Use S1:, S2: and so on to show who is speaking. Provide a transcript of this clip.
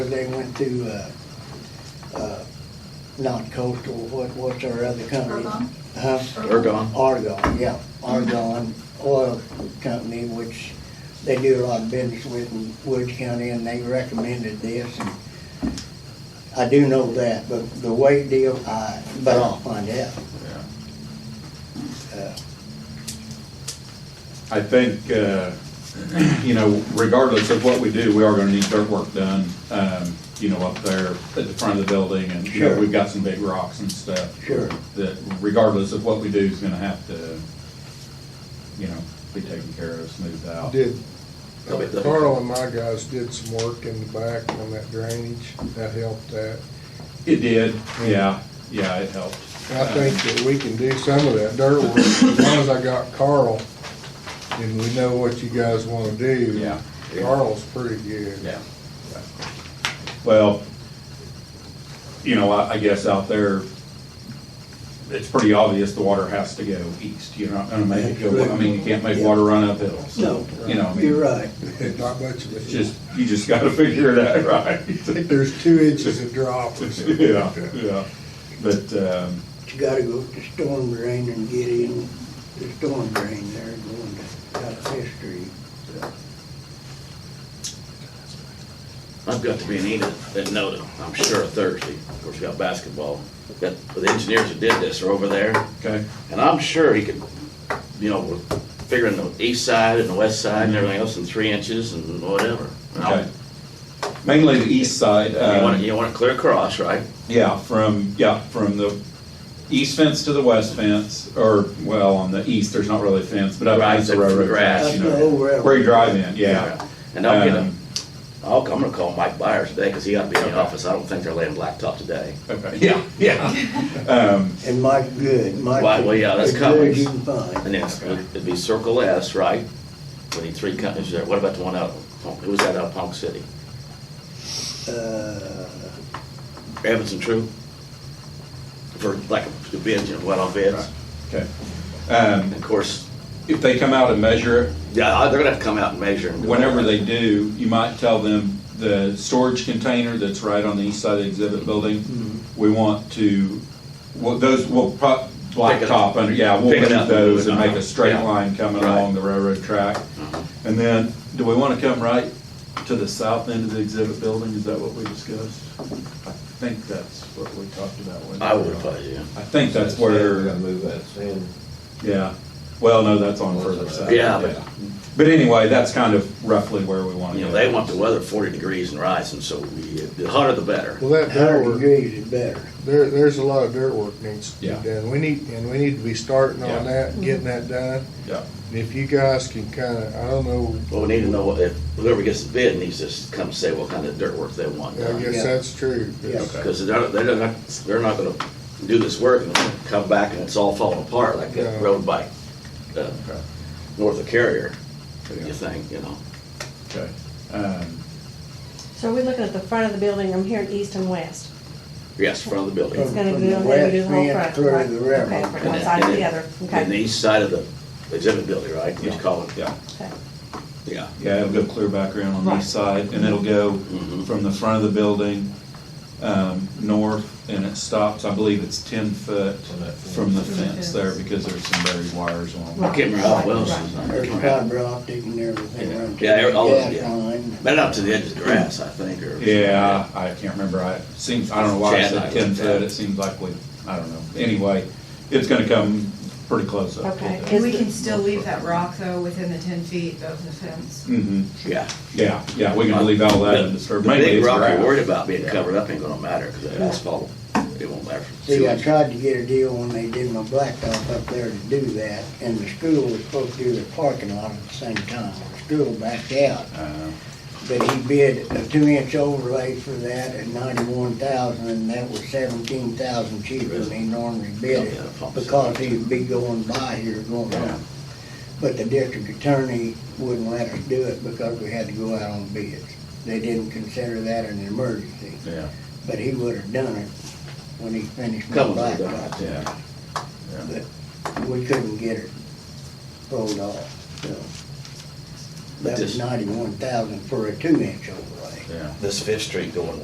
S1: they went to, uh, uh, not coastal, what, what's our other company?
S2: Ergon?
S1: Huh?
S3: Ergon.
S1: Argon, yeah, Argon Oil Company, which they do a lot of business with in Woods County, and they recommended this. and I do know that, but the weight deal, I, but I'll find out.
S3: Yeah.
S1: Uh,
S3: I think, uh, you know, regardless of what we do, we are gonna need dirt work done, um, you know, up there at the front of the building, and, you know,
S1: Sure.
S3: we've got some big rocks and stuff.
S1: Sure.
S3: That regardless of what we do is gonna have to, you know, be taken care of, smoothed out.
S4: Did, uh,
S5: That'll be the-
S4: Carl and my guys did some work in the back on that drainage, that helped that.
S3: It did, yeah, yeah, it helped.
S4: I
S3: Uh-huh.
S4: think that we can do some of that dirt work, as long as I got Carl, and we know what you guys wanna do.
S3: Yeah.
S4: Carl's pretty good.
S3: Yeah. Well, you know, I, I guess out there, it's pretty obvious the water has to go east. You're not gonna make it go, I mean, you can't make water run uphill, so,
S1: No,
S3: you know, I mean,
S1: you're right.
S4: Not much of it.
S3: it's just, you just gotta figure that right.
S4: I think there's two inches of drop or something.
S3: Yeah, yeah, but, um,
S1: But you gotta go to storm drain and get in the storm drain there, going to, out of Fifth Street.
S5: I've got to be in Enid at Noda, I'm sure Thursday, of course, we got basketball. Got, the engineers that did this are over there,
S3: okay,
S5: and I'm sure he could, you know, we're figuring the east side and the west side and everything else in three inches and whatever. And I'll-
S3: okay. Mainly the east side,
S5: You want it,
S3: um,
S5: you want it clear across, right?
S3: yeah, from, yeah, from the east fence to the west fence, or, well, on the east, there's not really a fence, but up
S5: Right,
S3: against the
S5: the
S3: railroad
S5: grass.
S3: tracks,
S1: That's
S3: you
S1: the
S3: know.
S1: old railroad.
S3: Where you drive in, yeah.
S5: And I'll get a,
S3: Um,
S5: I'll, I'm gonna call Mike Byers today, because he ought to be in
S3: Okay.
S5: the office, I don't think they're laying blacktop today.
S3: Okay, yeah, yeah. Um,
S1: And Mike Good, Mike.
S5: Well, well, yeah, that's
S1: as good as
S5: Cummings.
S1: you can find.
S5: And then it'd be Circle S, right? We need three companies there, what about the one out, of Punk- who was that out of Punk City?
S1: Uh,
S5: Evans and True? For like a bid, you know, what off bids?
S3: okay. Um,
S5: And of course,
S3: if they come out and measure it,
S5: yeah, I- they're gonna have to come out and measure and. do all
S3: whenever
S5: that.
S3: they do, you might tell them the storage container that's right on the east side of the exhibit building, we want to, well, those, we'll pro, blacktop under, yeah, we'll
S5: Pick it
S3: move
S5: up and move
S3: those
S5: it
S3: and make
S5: on.
S3: a straight
S5: Yeah.
S3: line coming
S5: Right. Uh-huh.
S3: along the railroad track. And then, do we want to come right to the south end of the exhibit building? Is that what we discussed? I think that's what we talked about. wasn't it?
S5: I would probably, yeah.
S3: I think that's
S6: We're
S3: where,
S6: gonna move that sand.
S1: uh,
S3: yeah. Well, no, that's on further south.
S5: Yeah, but-
S3: But anyway, that's kind of roughly where we want to
S5: You
S3: go.
S5: know, they want the weather forty degrees and rising, so we- the hotter the better.
S4: Well, that dirt
S1: Hundred
S4: work
S1: degrees is better.
S4: There, there's a lot of dirt work needs to be
S3: Yeah.
S4: done. We need, and we need to be starting
S3: Yeah.
S4: on that, getting that done.
S3: Yeah.
S4: And if you guys can kinda, I don't know,
S5: Well, we need to know what- if whoever gets the bid needs to come say what kind of dirt work they want
S4: I
S5: done.
S4: guess
S1: Yeah.
S4: that's true.
S1: Yeah.
S5: Because they're, they're not, they're not gonna do this work and come back and it's all falling apart like
S4: Yeah.
S5: that road by, uh, north of Carrier,
S3: Yeah.
S5: you think, you know?
S3: Okay. Um,
S7: So are we looking at the front of the building, I'm hearing east and west?
S5: Yes, front of the building.
S7: It's gonna
S1: From
S7: be,
S1: the
S7: they're gonna do the whole
S1: west end
S7: front,
S1: through
S7: right?
S1: the
S7: Okay,
S1: railroad.
S7: from
S5: And
S7: one
S5: then-
S7: side to
S5: and
S7: the
S5: then-
S7: other,
S5: And the
S7: okay.
S5: east side of the exhibit building, right? You
S3: Yeah.
S5: call it,
S3: Yeah,
S7: Okay.
S5: yeah.
S3: yeah, it'll go clear background on the east side, and it'll go
S5: Mhm.
S3: from the front of the building, um, north, and it stops, I believe it's ten foot from the fence there, because there's some buried wires along.
S5: I
S7: Right.
S5: can't remember how well
S1: There's
S5: it's.
S1: fiber optic and everything around.
S5: Yeah, they're all-
S1: Gas
S5: yeah.
S1: line.
S5: But up to the edge of the grass, I think, or.
S3: Yeah, I can't remember, I, seems, I don't know why I
S5: Chad
S3: said
S5: and I
S3: ten
S5: looked at
S3: foot,
S5: it.
S3: it seems like we, I don't know, anyway, it's gonna come pretty close up.
S7: Okay.
S2: And we can still leave that rock though within the ten feet of the fence.
S3: Mm-hmm,
S5: Yeah.
S3: yeah, yeah, we can leave all that undisturbed,
S5: The
S3: mainly
S5: big
S3: it's
S5: rock
S3: grass.
S5: you're worried about being covered up ain't gonna matter, because that asphalt, it won't matter. for too
S1: See, I
S5: much.
S1: tried to get a deal when they did my blacktop up there to do that, and the school was supposed to do their parking lot at the same time. The school backed out,
S3: Uh,
S1: but he bid a two-inch overlay for that at ninety-one thousand, and that was seventeen thousand cheaper than he normally bid it, because he'd be going by here going
S3: Yeah.
S1: on. But the district attorney wouldn't let us do it because we had to go out on bids. They didn't consider that an emergency,
S3: Yeah,
S1: but he would have done it when he finished my
S5: Couple of them,
S1: blacktop.
S3: yeah, yeah,
S1: We couldn't get it rolled off, so. That was
S5: Just-
S1: ninety-one thousand for a two-inch overlay.
S3: yeah.
S5: This Fifth Street going